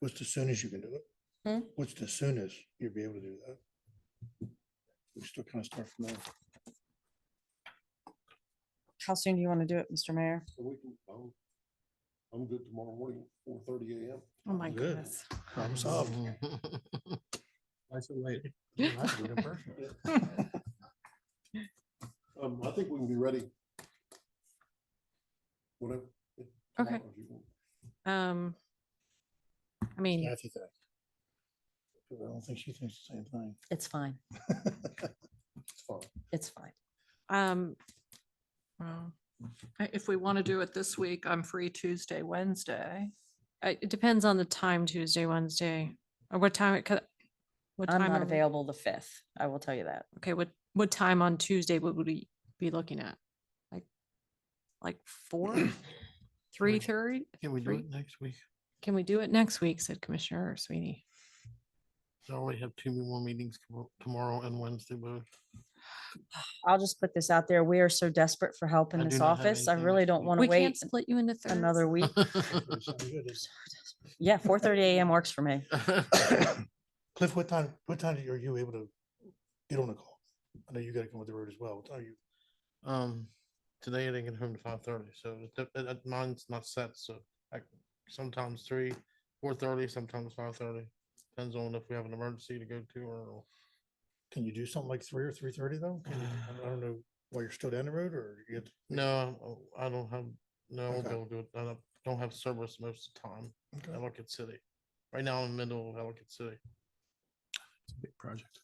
What's the soonest you can do Hmm? it? What's the soonest you'll be able to do that? We still kind of start from there. How soon do you want to do it, Mr. Mayor? So we can, I'm, I'm good tomorrow morning, four thirty AM. Oh, my Good. goodness. Problem solved. Nice and late. Well, Um, I think we can be ready. Whatever. Okay. Tomorrow if you want. Um, I mean, Kathy thought- I don't think she thinks the same thing. it's fine. It's fine. It's fine. Um, Well, I- If we want to do it this week, I'm free Tuesday, Wednesday. I- it depends on the time Tuesday, Wednesday, or what time it could. What I'm time not are we- available the fifth. I will tell you that. Okay, what, what time on Tuesday would we be looking at? Like, like four, three thirty? Can we do Three. it next week? Can we do it next week, said Commissioner Sweeney? I only have two more meetings tomo- tomorrow and Wednesday, but I'll just put this out there. We are so desperate for help in I this do not have office. I anything really next don't week. want We to can't wait split you into thirds. another week. Yeah, four thirty AM works for me. Cliff, what time, what time are you able to get on the call? I know you gotta come with the road as well. What time are you? Um, today I didn't get home to five thirty, so it dep- uh, uh, mine's not set, so I sometimes three, four thirty, sometimes five thirty. Depends on if we have an emergency to go to or Can you do something like three or three thirty though? Can you- I don't- I don't know, while you're still down the road or you have to? no, I don't have, no, I won't be Okay. able to do it. I don't- don't have service most of the time. Okay. Ellicott City. Right now, I'm in the middle of Ellicott City. Big project.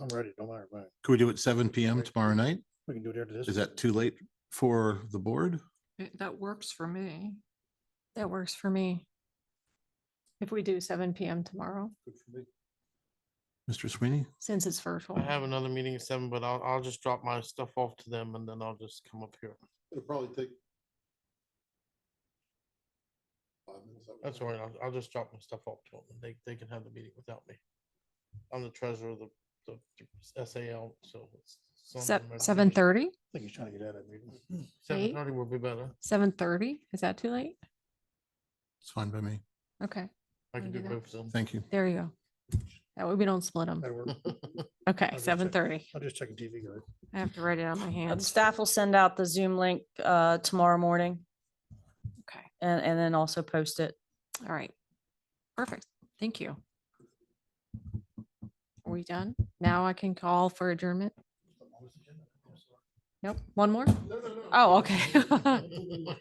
I'm ready, don't matter, man. Could we do it seven PM Right. tomorrow night? We can do it after this. Is that too late for the board? Eh, That works for me. That works for me. If we do seven PM tomorrow, Good for me. Mr. Sweeney? since it's virtual. I have another meeting at seven, but I'll, I'll just drop my stuff off to them and then I'll just come up here. It'll probably take. five minutes. I would That's think. all right. I'll, I'll just drop my stuff off to them. and They, they can have the meeting without me. I'm the treasurer of the, the the SAL, so. it's- it's on the Seven, emergency seven meeting. thirty? I think he's trying to get out of that meeting. Seven eight? thirty will be better. Seven thirty? Is that too late? It's fine by me. Okay, I Wanna can do do that? both of them. Thank you. there you go. That way we don't split them. That'll work. Okay, I'll just check. seven thirty. I'm just checking TV guide. I have to write it on my Uh, hand. Staff will send out the Zoom link uh tomorrow morning Okay, and and then also post it. all right. Perfect. Thank you. Are we done? Now I can call for adjournment? Nope, one more? Oh, okay.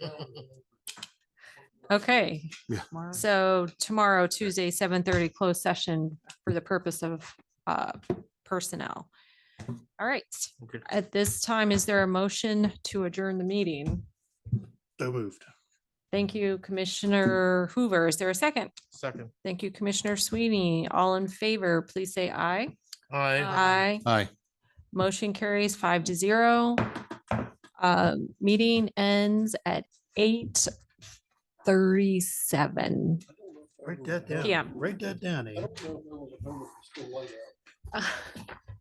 Okay. Mark? So tomorrow, Tuesday, seven thirty, closed session for the purpose of uh, personnel. All right. Okay. At this time, is there a motion to adjourn the meeting? So moved. Thank you, Commissioner Hoover. Is there a second? Second. Thank you, Commissioner Sweeney. All in favor, please say aye. All right. Aye. Aye. Motion carries five to zero. Uh, Meeting ends at eight thirty-seven. I don't know if I Write was- that down. Yeah. Write that down, I Ian. don't know if there was a homework still laid out.